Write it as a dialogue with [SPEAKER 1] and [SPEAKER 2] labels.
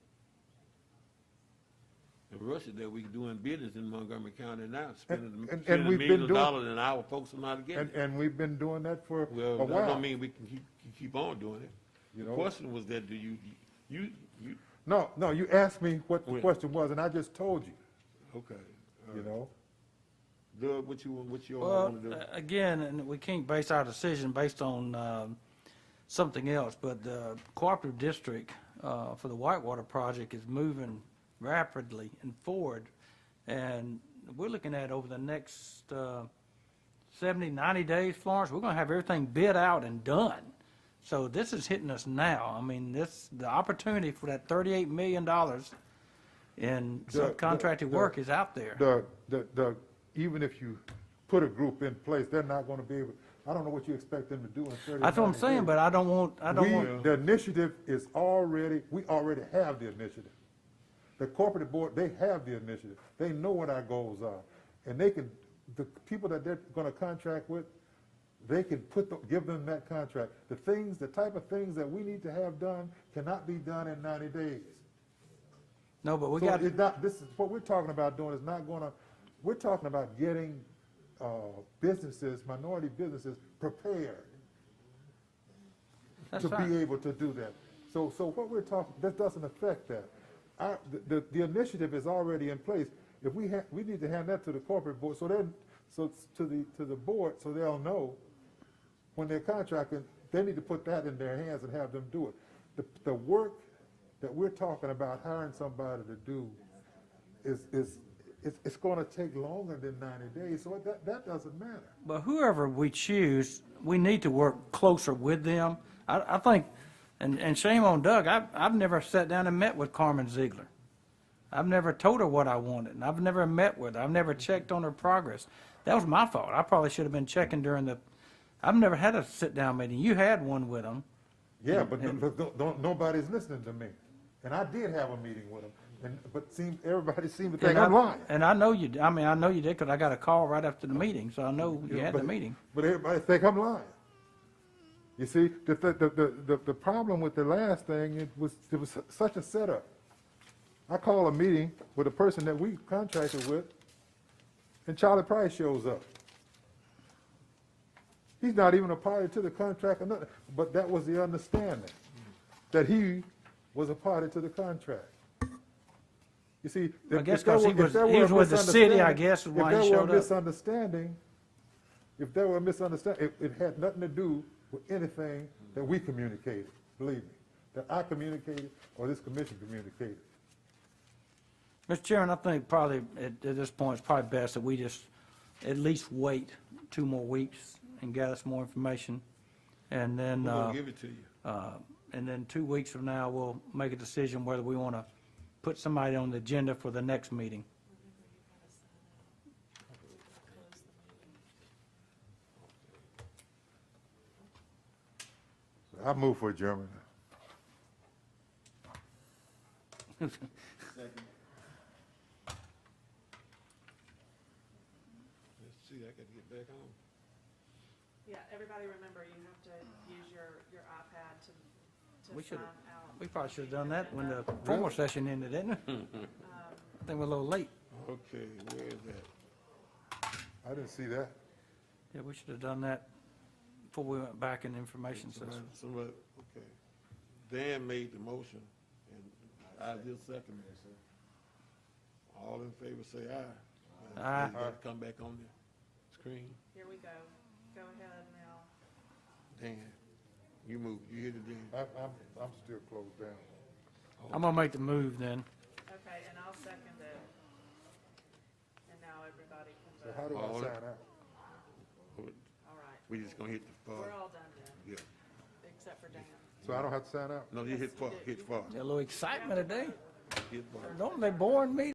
[SPEAKER 1] Russia that we doing business in Montgomery County now, spending,
[SPEAKER 2] and
[SPEAKER 1] spending
[SPEAKER 2] we've been
[SPEAKER 1] millions of
[SPEAKER 2] doing-
[SPEAKER 1] dollars and our folks are not getting
[SPEAKER 2] And,
[SPEAKER 1] it.
[SPEAKER 2] and we've been doing that for a
[SPEAKER 1] Well, that
[SPEAKER 2] while.
[SPEAKER 1] don't mean we can keep, keep on doing it.
[SPEAKER 2] You
[SPEAKER 1] The
[SPEAKER 2] know-
[SPEAKER 1] question was that, do you, you, you,
[SPEAKER 2] No, no, you asked me what the
[SPEAKER 1] Well-
[SPEAKER 2] question was, and I just told you,
[SPEAKER 1] okay. all
[SPEAKER 2] you
[SPEAKER 1] right.
[SPEAKER 2] know?
[SPEAKER 1] Doug, what you, want- what you all
[SPEAKER 3] Well,
[SPEAKER 1] wanna do?
[SPEAKER 3] uh, again, and we can't base our decision based on um, something else, but the cooperative district uh, for the Whitewater project is moving rapidly and forward. And we're looking at over the next uh, 70, 90 days, Florence, we're going to have everything bid out and done. So this is hitting us now. I mean, this, the opportunity for that $38 million in
[SPEAKER 2] Doug, Doug,
[SPEAKER 3] subcontracted work
[SPEAKER 2] Doug,
[SPEAKER 3] is out there.
[SPEAKER 2] Doug, Doug, Doug, even if you put a group in place, they're not gonna be able, I don't know what you expect them to do in thirty,
[SPEAKER 3] That's what I'm
[SPEAKER 2] 90
[SPEAKER 3] saying,
[SPEAKER 2] days.
[SPEAKER 3] but I don't want, I don't
[SPEAKER 2] We-
[SPEAKER 3] want.
[SPEAKER 2] The initiative is already, we already have the initiative. The corporate board, they have the initiative. They know what our goals are. And they can, the people that they're gonna contract with, they can put, the- give them that contract. The things, the type of things that we need to have done cannot be done in ninety days.
[SPEAKER 3] No, but we
[SPEAKER 2] So
[SPEAKER 3] got,
[SPEAKER 2] it's not, this is, what we're talking about doing is not gonna, we're talking about getting, uh, businesses, minority businesses prepared
[SPEAKER 3] that's
[SPEAKER 2] to be
[SPEAKER 3] fine.
[SPEAKER 2] able to do that. So, so what we're talking, that doesn't affect that. Our, the- the, the initiative is already in place. If we have, we need to hand that to the corporate board, so then, so it's to the, to the board, so they'll know when they're contracting, they need to put that in their hands and have them do it. The, the work that we're talking about hiring somebody to do is, is, it's, it's gonna take longer than ninety days, so that, that doesn't matter.
[SPEAKER 3] But whoever we choose, we need to work closer with them. I, I think, and, and shame on Doug, I've, I've never sat down and met with Carmen Ziegler. I've never told her what I wanted, and I've never met with her. I've never checked on her progress. That was my fault. I probably should have been checking during the, I've never had a sit-down meeting. You had one with them.
[SPEAKER 2] Yeah, but no- but don't, don't, nobody's listening to me. And I did have a meeting with him, and, but seemed, everybody seemed to think
[SPEAKER 3] and I-
[SPEAKER 2] I'm lying.
[SPEAKER 3] And I know you, d- I mean, I know you did, because I got a call right after the meeting, so I know you had the
[SPEAKER 2] But-
[SPEAKER 3] meeting.
[SPEAKER 2] But everybody think I'm lying. You see, the, the, the- the, the, the problem with the last thing, it was, it was such a setup. I call a meeting with a person that we contracted with, and Charlie Price shows up. He's not even a party to the contract or nothing, but that was the understanding, that he was a party to the contract. You see. if-
[SPEAKER 3] I guess
[SPEAKER 2] if there
[SPEAKER 3] 'cause he
[SPEAKER 2] were- if
[SPEAKER 3] was-
[SPEAKER 2] there
[SPEAKER 3] he
[SPEAKER 2] were a
[SPEAKER 3] was with the city, I
[SPEAKER 2] misunderstanding-
[SPEAKER 3] guess, is why he
[SPEAKER 2] If there were
[SPEAKER 3] showed
[SPEAKER 2] a
[SPEAKER 3] up.
[SPEAKER 2] misunderstanding, if there were a misunderstanding, it, it had nothing to do with anything that we communicated, believe me, that I communicated or this commission communicated.
[SPEAKER 3] Mr. Chairman, I think probably, at, at this point, it's probably best that we just at least wait two more weeks and gather some more information. And
[SPEAKER 1] We're
[SPEAKER 3] then,
[SPEAKER 1] gonna
[SPEAKER 3] uh,
[SPEAKER 1] give it to you.
[SPEAKER 3] uh, and then two weeks from now, we'll make a decision whether we want to put somebody on the agenda for the next meeting.
[SPEAKER 2] I move for adjournment.
[SPEAKER 1] Let's see, I gotta get back on.
[SPEAKER 4] Yeah, everybody remember, you have to use your, your iPad to,
[SPEAKER 3] We
[SPEAKER 4] to sign
[SPEAKER 3] should've-
[SPEAKER 4] out.
[SPEAKER 3] We probably should have done that when the formal session ended, didn't we? I think we're a little late.
[SPEAKER 1] Okay, where is that?
[SPEAKER 2] I didn't see that.
[SPEAKER 3] Yeah, we should have done that before we went back in the information session.
[SPEAKER 1] Somebody- Somebody, okay. Dan made the motion, and I just seconded it. All in favor, say aye.
[SPEAKER 3] Aye.
[SPEAKER 1] You gotta Come back on the screen.
[SPEAKER 4] Here we go. Go ahead now.
[SPEAKER 1] Dan, you move, you hit it, Dan.
[SPEAKER 2] I, I'm, I'm still closed down.
[SPEAKER 3] I'm gonna make the move then.
[SPEAKER 4] Okay, and I'll second it. And now everybody can
[SPEAKER 2] So how
[SPEAKER 4] vote.
[SPEAKER 2] do I
[SPEAKER 1] All right.
[SPEAKER 2] sign out?
[SPEAKER 4] All right.
[SPEAKER 1] We just gonna hit the
[SPEAKER 4] We're
[SPEAKER 1] far,
[SPEAKER 4] all done then,
[SPEAKER 1] yeah.
[SPEAKER 4] except for Dan.
[SPEAKER 2] So I don't have to sign out?
[SPEAKER 1] No, you hit far, hit far,
[SPEAKER 3] Got A little excitement today.
[SPEAKER 1] hit far.
[SPEAKER 3] Don't they boring me?